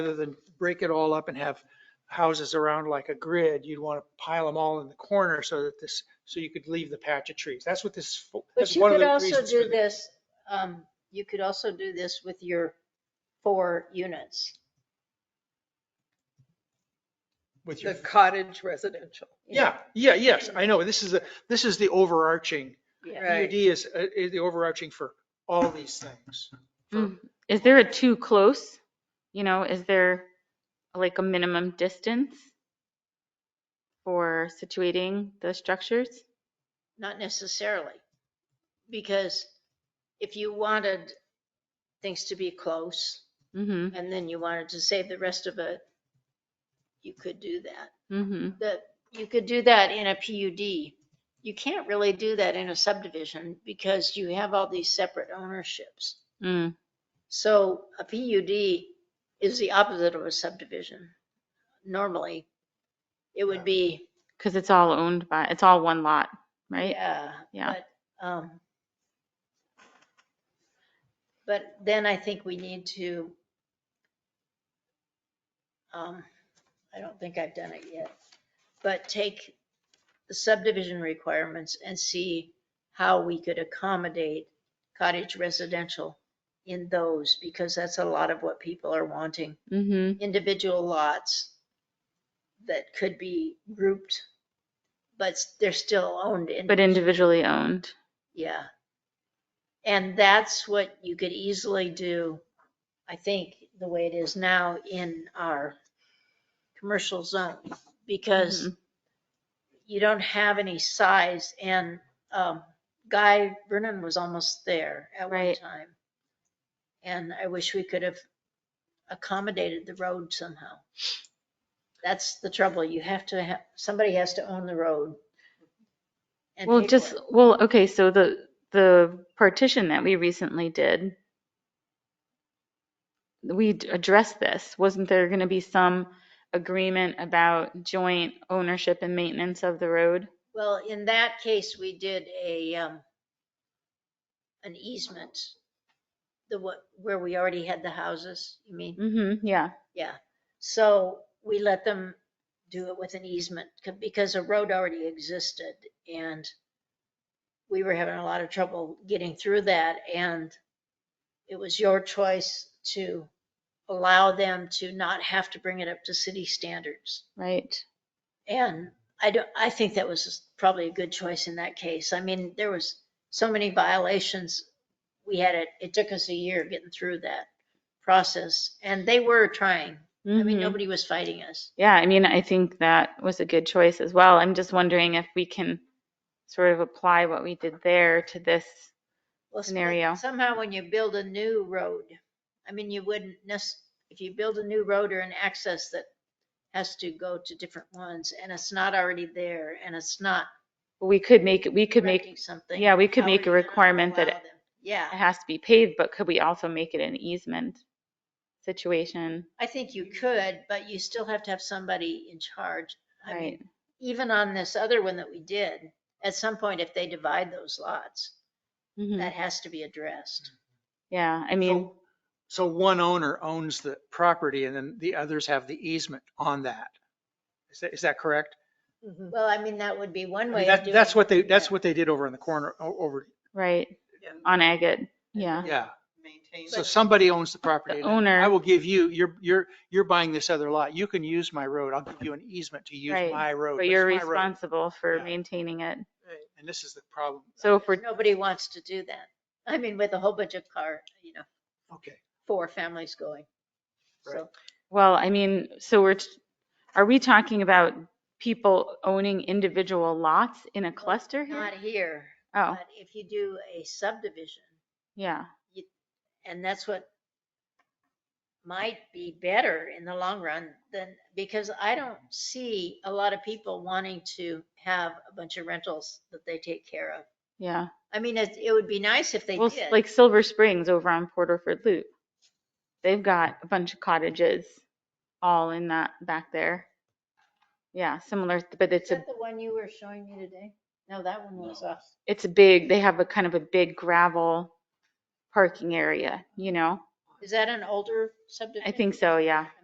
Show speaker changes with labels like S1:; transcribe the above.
S1: rather than break it all up and have houses around like a grid, you'd want to pile them all in the corner so that this, so you could leave the patch of trees. That's what this,
S2: But
S1: that's
S2: you
S1: one of
S2: could
S1: the
S2: also
S1: reasons. for
S2: do
S1: the-
S2: this, um, you could also do this with your four units.
S1: With your,
S3: The cottage residential.
S1: yeah, yeah, yes, I know. This is, the this is the overarching,
S2: Yeah.
S1: PUD
S3: Right.
S1: is, uh, is the overarching for all these things.
S4: Mm. Is there a too close? You know, is there like a minimum distance for situating the structures?
S2: Not necessarily, because if you wanted things to be close
S4: hmm
S2: and then you wanted to save the rest of it, you could do that.
S4: hmm
S2: That, you could do that in a PUD. You can't really do that in a subdivision because you have all these separate ownerships.
S4: Mm.
S2: So a PUD is the opposite of a subdivision. Normally, it would be,
S4: Cause it's all owned by, it's all one lot, right?
S2: yeah.
S4: Yeah.
S2: but, um, But then I think we need to, um, I don't think I've done it yet, but take the subdivision requirements and see how we could accommodate cottage residential in those, because that's a lot of what people are wanting.
S4: hmm
S2: individual lots that could be grouped, but they're still owned in.
S4: But individually owned.
S2: Yeah. And that's what you could easily do, I think, the way it is now in our commercial zone, because you don't have any size and, um, Guy Vernon was almost there at one
S4: Right.
S2: time. And I wish we could have accommodated the road somehow. That's the trouble. You have to have, somebody has to own the road. and
S4: Well,
S2: pay for
S4: just,
S2: it.
S4: well, okay, so the, the partition that we recently did, we d- addressed this. Wasn't there going to be some agreement about joint ownership and maintenance of the road?
S2: Well, in that case, we did a, um, an easement, the what, where we already had the houses, you mean?
S4: Mm-hmm, yeah.
S2: Yeah. So we let them do it with an easement c- because a road already existed and we were having a lot of trouble getting through that and it was your choice to allow them to not have to bring it up to city standards.
S4: Right.
S2: And I don't, I think that was probably a good choice in that case. I mean, there was so many violations. We had it, it took us a year getting through that process and they were trying. I mean,
S4: Mhm.
S2: nobody was fighting us.
S4: Yeah, I mean, I think that was a good choice as well. I'm just wondering if we can sort of apply what we did there to this.
S2: Well, some-
S4: Scenario.
S2: Somehow when you build a new road, I mean, you wouldn't necess, if you build a new road or an access that has to go to different ones and it's not already there and it's not
S4: We could make, it. we could make,
S2: correcting something.
S4: yeah, we could
S2: how
S4: make a
S2: are you gonna
S4: requirement that
S2: allow
S4: it
S2: them? Yeah,
S4: it has to be paved, but could we also make it an easement situation?
S2: I think you could, but you still have to have somebody in charge. I mean,
S4: Right.
S2: Even on this other one that we did, at some point, if they divide those lots,
S4: Mhm.
S2: that has to be addressed.
S4: Yeah, I mean,
S1: So- So one owner owns the property and then the others have the easement on that. Is that, is that correct?
S3: Mhm.
S2: Well, I mean, that would be one
S1: I
S2: way
S1: mean,
S2: of
S1: that-
S2: doing
S1: That's what they,
S2: it.
S1: that's
S2: Yeah.
S1: what they did over in the corner, o- over,
S4: right,
S3: Yeah.
S4: on agate,
S2: Oh, Uh-huh.
S4: yeah.
S1: yeah.
S3: Maintain
S1: So
S3: it.
S1: somebody owns the property.
S4: The
S1: and I
S4: owner.
S1: will give you, you're, you're, you're buying this other lot. You can use my road. I'll give you an easement to use
S4: Right,
S1: my road.
S4: But you're
S1: it's my road.
S4: responsible for
S1: Yeah.
S4: maintaining it.
S3: Right.
S1: And this is the problem.
S4: So if we're,
S2: Nobody wants to do that. I mean, with a whole bunch of car, you know,
S1: Okay.
S2: four families going. So
S4: well, I mean, so we're, t- are we talking about people owning individual lots in a cluster here?
S2: not here,
S4: Oh,
S2: but if you do a subdivision,
S4: yeah,
S2: and that's what might be better in the long run than, because I don't see a lot of people wanting to have a bunch of rentals that they take care of.
S4: yeah.
S2: I mean, it, it would be nice if they
S4: Well, s-
S2: did.
S4: like Silver Springs over on Porterford Loop. They've got a bunch of cottages all in that, back there. Yeah, similar, but
S2: Is
S4: it's a
S2: that the one you were showing me today? No, that one was us.
S4: it's a big, they have a kind of a big gravel parking area, you know?
S2: Is that an older subdivision?
S4: I think so, yeah.